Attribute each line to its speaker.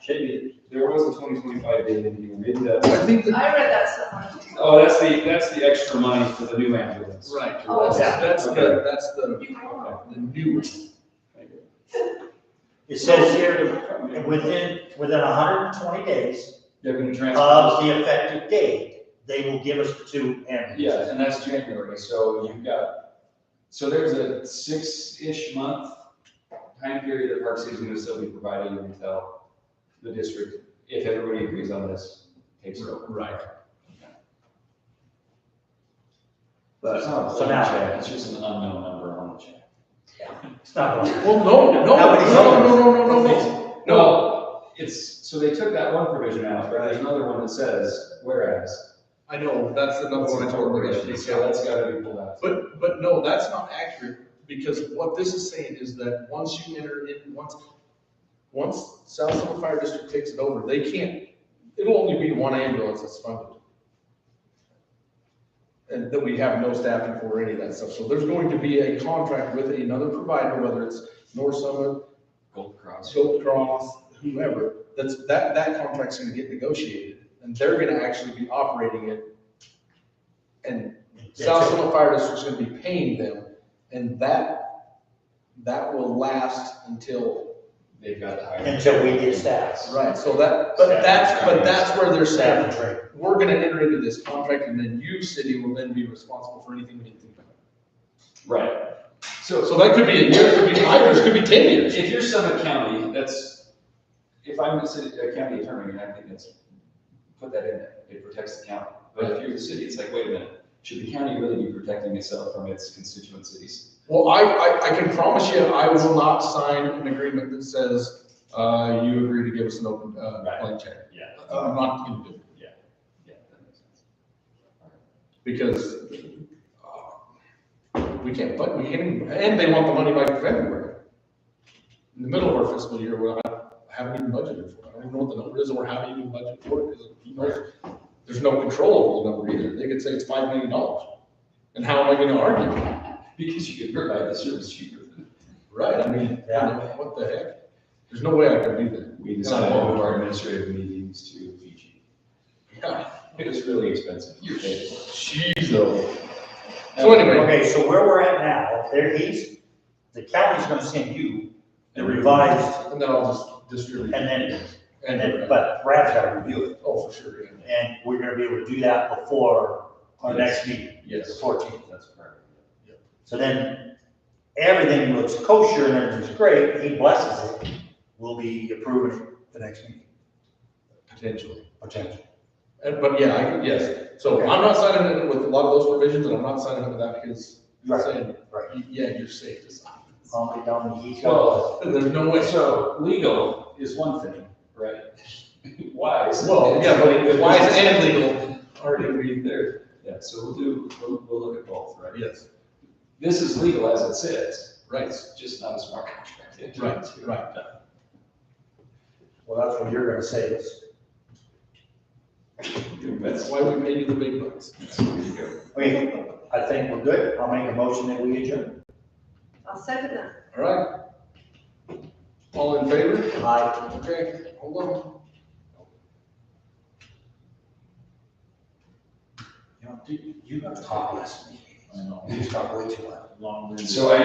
Speaker 1: Should be.
Speaker 2: There was a twenty twenty-five date in here, maybe that.
Speaker 3: I think, that-
Speaker 4: I read that somewhere.
Speaker 2: Oh, that's the, that's the extra money for the new ambulance.
Speaker 3: right,
Speaker 4: Oh,
Speaker 3: that's,
Speaker 1: yeah.
Speaker 3: that's the,
Speaker 2: Okay.
Speaker 3: that's the, the new,
Speaker 1: It says here, within, within hundred and twenty days
Speaker 2: They're gonna transfer.
Speaker 1: of the effective date, they will give us the two ambulances.
Speaker 2: Yeah, and that's January, so you've got, so there's a six-ish month time period that Park City's gonna still be providing until the district, if everybody agrees on this, takes it over.
Speaker 3: right.
Speaker 2: But uh,
Speaker 1: So now-
Speaker 2: it's just an unknown number on the check.
Speaker 1: It's not going to.
Speaker 3: Well, no, no, no,
Speaker 1: How many
Speaker 3: no, no, no, no, no.
Speaker 2: No, it's, so they took that one provision out, but there's another one that says, whereas.
Speaker 3: I know, that's the number one I told her,
Speaker 2: So that's gotta be pulled out.
Speaker 3: But, but no, that's not accurate, because what this is saying is that once you enter in, once, once South Summit Fire District takes it over, they can't, it'll only be one ambulance that's funded. And that we have no staffing for or any of that stuff, so there's going to be a contract with another provider, whether it's North Summit,
Speaker 2: Gold Cross.
Speaker 3: Silk Cross, whoever, that's, that, that contract's gonna get negotiated, and they're gonna actually be operating it. And South
Speaker 1: That's it.
Speaker 3: Sonoma Fire District's gonna be paying them, and that, that will last until,
Speaker 2: They've got to hire.
Speaker 1: Until we get staff.
Speaker 3: right, so that, but that's, but that's where they're
Speaker 1: Staff and
Speaker 3: saying,
Speaker 1: training.
Speaker 3: we're gonna enter into this contract, and then you, city, will then be responsible for anything we need to do.
Speaker 2: Right. So,
Speaker 3: So that could be a year, it could be five years, it could be ten years.
Speaker 2: if you're Summit County, that's, if I'm the city, a county attorney, and I think that's, put that in there, it protects the county. But if you're the city, it's like, wait a minute, should the county really be protecting itself from its constituent cities?
Speaker 3: Well, I, I, I can promise you, I will not sign an agreement that says, uh, you agree to give us an open, uh,
Speaker 2: Right.
Speaker 3: blank check.
Speaker 2: Yeah.
Speaker 3: I'm not gonna do it.
Speaker 2: Yeah, that makes sense.
Speaker 3: because uh, we can't, but we can't, and they want the money by February. In the middle of our fiscal year, we're not, haven't even budgeted for it. I don't even know what the number is, or haven't even budgeted for it, because you know, there's no control over the number either. They could say it's five million dollars. And how am I gonna argue?
Speaker 2: Because you could provide the service cheaper than.
Speaker 3: Right, I mean,
Speaker 1: Yeah.
Speaker 3: what the heck? There's no way I could do that.
Speaker 2: We decided all of our administrative meetings to Fiji.
Speaker 3: Yeah.
Speaker 2: It was really expensive.
Speaker 3: Jeez, though. So anyway,
Speaker 1: Okay, so where we're at now, there he's, the county's gonna send you the revised,
Speaker 3: and then I'll just distribute.
Speaker 1: and then, and then,
Speaker 3: And, uh,
Speaker 1: but Brad's gotta review it.
Speaker 3: oh, for sure, yeah.
Speaker 1: And we're gonna be able to do that before our next meeting, the
Speaker 2: Yes,
Speaker 1: fourteenth.
Speaker 2: that's correct.
Speaker 1: So then, everything looks kosher and everything's great, he blesses it, we'll be approving the next meeting,
Speaker 3: potentially.
Speaker 1: potentially.
Speaker 3: And, but yeah, I, yes, so
Speaker 1: Okay.
Speaker 3: I'm not signing it with a lot of those provisions, and I'm not signing it without his
Speaker 1: Right,
Speaker 3: saying,
Speaker 1: right.
Speaker 3: "Y- yeah, you're safe to sign. this."
Speaker 1: Calm it down, he's got,
Speaker 2: Well,
Speaker 3: There's no way,
Speaker 2: So legal is one thing, right? Wise.
Speaker 3: well, yeah, but wise and legal are gonna be there,
Speaker 2: Yeah, so we'll do, we'll, we'll look at both, right?
Speaker 3: yes,
Speaker 2: This is legal as it sits.
Speaker 3: right,
Speaker 2: It's just not a smart contract. to enter
Speaker 3: right,
Speaker 2: into.
Speaker 3: right.
Speaker 1: well, that's what you're gonna say is,
Speaker 3: That's why we pay you the big bucks.
Speaker 1: wait, I think we're good, I'll make a motion that we adjourn.
Speaker 4: I'll second that.
Speaker 3: All right? All in favor?
Speaker 1: Aye.
Speaker 3: Okay, hold on.
Speaker 1: You know, dude, you got to talk less. than me. I know. You just talk way too much.
Speaker 2: So I